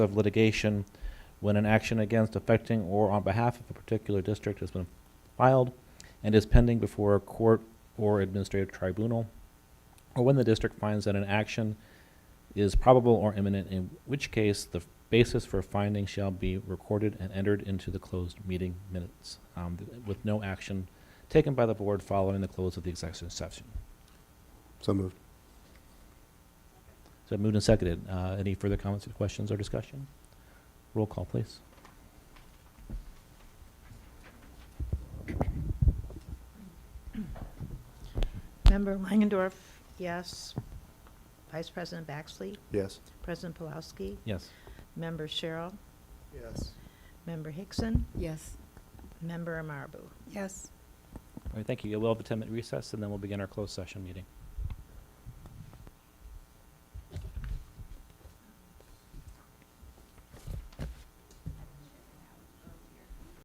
of litigation when an action against affecting or on behalf of a particular district has been filed and is pending before a court or administrative tribunal, or when the district finds that an action is probable or imminent, in which case the basis for finding shall be recorded and entered into the closed meeting minutes, um, with no action taken by the board following the close of the executive session. So moved. So moved and seconded. Uh, Any further comments, questions, or discussion? Roll call, please. Member Langendorf, yes. Vice President Baxley, Yes. President Palowski, Yes. Member Cheryl, Yes. Member Hickson, Yes. Member Amarbu. Yes. All right, thank you. We'll have a 10-minute recess, and then we'll begin our closed session meeting.